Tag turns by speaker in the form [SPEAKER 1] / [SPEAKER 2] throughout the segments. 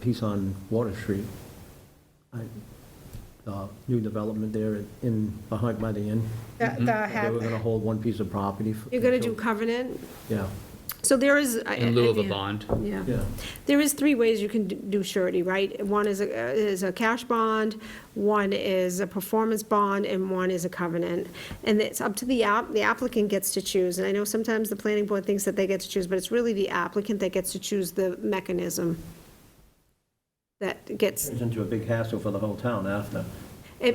[SPEAKER 1] piece on Water Street. I- uh, New development there in, behind, by the inn.
[SPEAKER 2] The- the
[SPEAKER 1] They were
[SPEAKER 2] hab-
[SPEAKER 1] going to hold one piece of property. for-
[SPEAKER 2] You're going to do covenant?
[SPEAKER 1] Yeah,
[SPEAKER 2] So there is.
[SPEAKER 3] in lieu of a bond.
[SPEAKER 2] Yeah.
[SPEAKER 1] yeah.
[SPEAKER 2] There is three ways you can d- do surety, right? One is a, is a cash bond, one is a performance bond, and one is a covenant. And it's up to the app, the applicant gets to choose. And I know sometimes the planning board thinks that they get to choose, but it's really the applicant that gets to choose the mechanism that gets,
[SPEAKER 1] Turns into a big hassle for the whole town after.
[SPEAKER 2] it-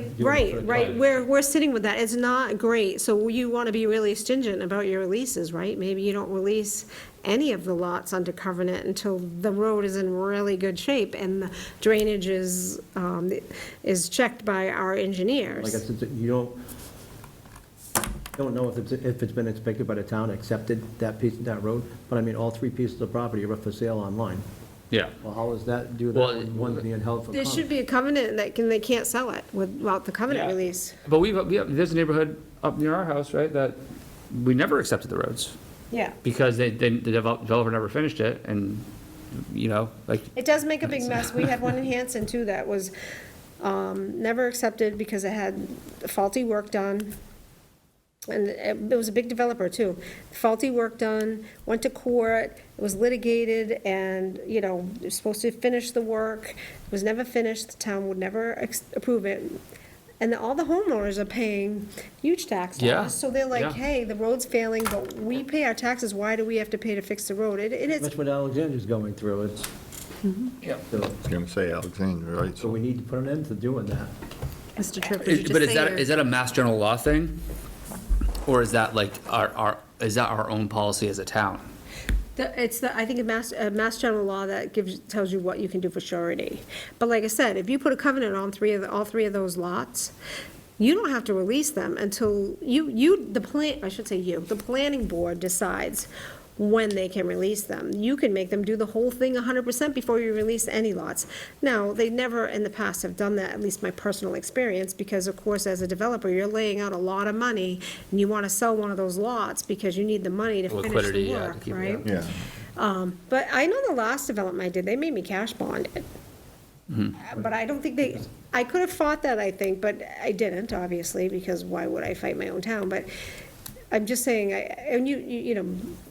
[SPEAKER 1] You want to put
[SPEAKER 2] right,
[SPEAKER 1] it
[SPEAKER 2] right,
[SPEAKER 3] down.
[SPEAKER 2] we're, we're sitting with that, it's not great, so you want to be really stringent about your releases, right? Maybe you don't release any of the lots under covenant until the road is in really good shape and the drainage is, um, is checked by our
[SPEAKER 1] Like I
[SPEAKER 2] engineers.
[SPEAKER 1] said, you don't, don't know if it's, if it's been inspected by the town, accepted that piece, that road, but I mean, all three pieces of property are up for sale online.
[SPEAKER 3] Yeah.
[SPEAKER 1] Well, how does that do that
[SPEAKER 3] Well,
[SPEAKER 1] when one's being held for
[SPEAKER 2] There
[SPEAKER 1] comment?
[SPEAKER 2] should be a covenant that can, they can't sell it without the covenant
[SPEAKER 3] Yeah.
[SPEAKER 2] release.
[SPEAKER 3] But we've, we have, there's a neighborhood up near our house, right, that we never accepted the roads
[SPEAKER 2] Yeah.
[SPEAKER 3] because they, they, the develop- developer never finished it and, you know, like,
[SPEAKER 2] It does make a big mess. We had one in Hanson too that was um, never accepted because it had faulty work done. And it it was a big developer too. Faulty work done, went to court, it was litigated and, you know, it was supposed to finish the work, it was never finished, the town would never ex- approve it. And all the homeowners are paying huge taxes.
[SPEAKER 3] Yeah,
[SPEAKER 2] So they're like,
[SPEAKER 3] yeah.
[SPEAKER 2] hey, the road's failing, but we pay our taxes, why do we have to pay to fix the road? It it is,
[SPEAKER 1] That's what Alexandria's going through, it's.
[SPEAKER 3] Yep.
[SPEAKER 1] So-
[SPEAKER 4] I was going to say Alexandria, right?
[SPEAKER 1] So we need to put an end to doing that.
[SPEAKER 5] Mr. Tripp, would you
[SPEAKER 3] Is- but
[SPEAKER 5] just
[SPEAKER 3] is
[SPEAKER 5] say
[SPEAKER 3] that,
[SPEAKER 5] your?
[SPEAKER 3] is that a mass general law thing? Or is that like our, our, is that our own policy as a town?
[SPEAKER 2] The- It's the, I think, a mass, a mass general law that gives, tells you what you can do for surety. But like I said, if you put a covenant on three of, the- all three of those lots, you don't have to release them until you, you, the plan, I should say you, the planning board decides when they can release them. You can make them do the whole thing hundred percent before you release any lots. Now, they never in the past have done that, at least my personal experience, because of course, as a developer, you're laying out a lot of money, and you wanna sell one of those lots because you need the money to finish
[SPEAKER 3] Liquidity,
[SPEAKER 2] the
[SPEAKER 3] yeah, to
[SPEAKER 2] work,
[SPEAKER 3] keep it
[SPEAKER 2] right?
[SPEAKER 3] up.
[SPEAKER 4] Yeah,
[SPEAKER 2] But I know the last development I did, they made me cash bond it. But I don't think they, I could have fought that, I think, but I didn't, obviously, because why would I fight my own town? But I'm just saying, I, and you, you you know,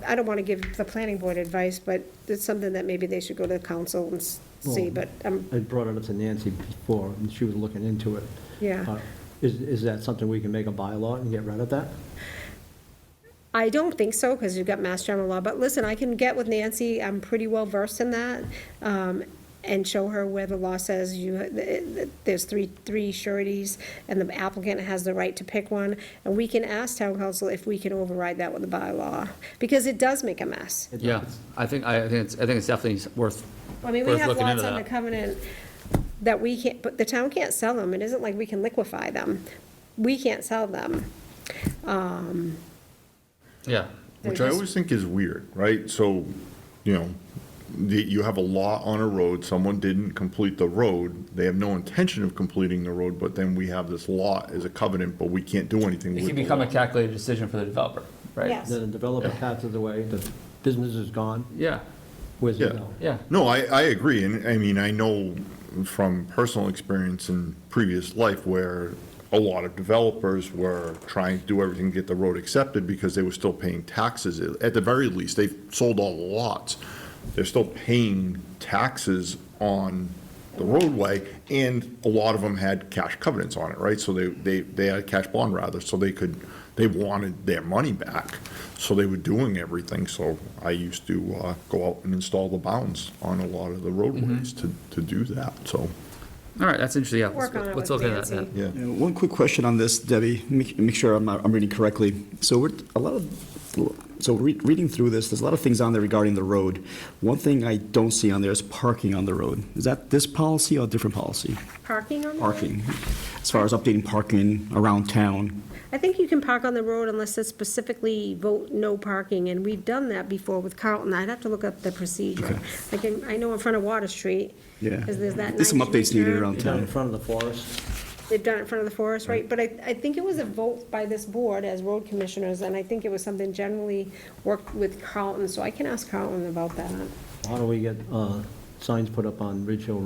[SPEAKER 2] I don't want to give the planning board advice, but it's something that maybe they should go to the council and s- see,
[SPEAKER 1] Well-
[SPEAKER 2] but, um,
[SPEAKER 1] I brought it up to Nancy before, and she was looking into it.
[SPEAKER 2] Yeah.
[SPEAKER 1] Uh, Is, is that something we can make a bylaw and get rid of that?
[SPEAKER 2] I don't think so, because you've got Mass General Law, but listen, I can get with Nancy, I'm pretty well versed in that, um, and show her where the law says you, there's three, three sureties, and the applicant has the right to pick one, and we can ask town council if we can override that with a bylaw, because it does make a mess.
[SPEAKER 3] Yeah, I think, I think it's, I think it's definitely worth,
[SPEAKER 2] I mean, we
[SPEAKER 3] Worth
[SPEAKER 2] have
[SPEAKER 3] looking
[SPEAKER 2] lots
[SPEAKER 3] into
[SPEAKER 2] on the
[SPEAKER 3] that.
[SPEAKER 2] covenant that we can't, but the town can't sell them, it isn't like we can liquefy them, we can't sell them.
[SPEAKER 3] yeah.
[SPEAKER 4] which I always think is weird, right? So, you know, the- you have a law on a road, someone didn't complete the road, they have no intention of completing the road, but then we have this law as a covenant, but we can't do anything with
[SPEAKER 3] It
[SPEAKER 4] it.
[SPEAKER 3] can become a calculated decision for the developer, right?
[SPEAKER 2] Yes.
[SPEAKER 1] Then the developer passes away, the business is gone,
[SPEAKER 3] Yeah,
[SPEAKER 1] where's it
[SPEAKER 4] Yeah.
[SPEAKER 1] go?
[SPEAKER 3] yeah.
[SPEAKER 4] No, I, I agree, and I mean, I know from personal experience in previous life where a lot of developers were trying to do everything to get the road accepted because they were still paying taxes. At the very least, they've sold all the lots. They're still paying taxes on the roadway, and a lot of them had cash covenants on it, right? So they, they, they had a cash bond rather, so they could, they wanted their money back. So they were doing everything, so I used to uh, go out and install the bounds on a lot of the roadways to, to do that, so.
[SPEAKER 3] All right, that's interesting, yeah. let's-
[SPEAKER 2] Work on it
[SPEAKER 3] Let's
[SPEAKER 2] with
[SPEAKER 3] look at that.
[SPEAKER 2] Nancy.
[SPEAKER 3] then.
[SPEAKER 4] Yeah.
[SPEAKER 6] Yeah, One quick question on this, Debbie, make make sure I'm I'm reading correctly. So we're, a lot of, so re- reading through this, there's a lot of things on there regarding the road. One thing I don't see on there is parking on the road. Is that this policy or a different policy?
[SPEAKER 2] Parking on the road?
[SPEAKER 6] Parking, as far as updating parking around town.
[SPEAKER 2] I think you can park on the road unless it specifically vote no parking, and we've done that before with Carlton. I'd have to look up the procedure. I can, I know in front of Water Street.
[SPEAKER 6] Yeah.
[SPEAKER 2] Because there's that.
[SPEAKER 6] There's some
[SPEAKER 2] 9
[SPEAKER 6] updates needed
[SPEAKER 2] turn.
[SPEAKER 6] around
[SPEAKER 1] It's down in
[SPEAKER 6] town.
[SPEAKER 1] front of the forest,
[SPEAKER 2] They've done it in front of the forest, right? But I, I think it was a vote by this board as road commissioners, and I think it was something generally worked with Carlton, so I can ask Carlton about that.
[SPEAKER 1] how do we get uh, signs put up on Ridge Hill Road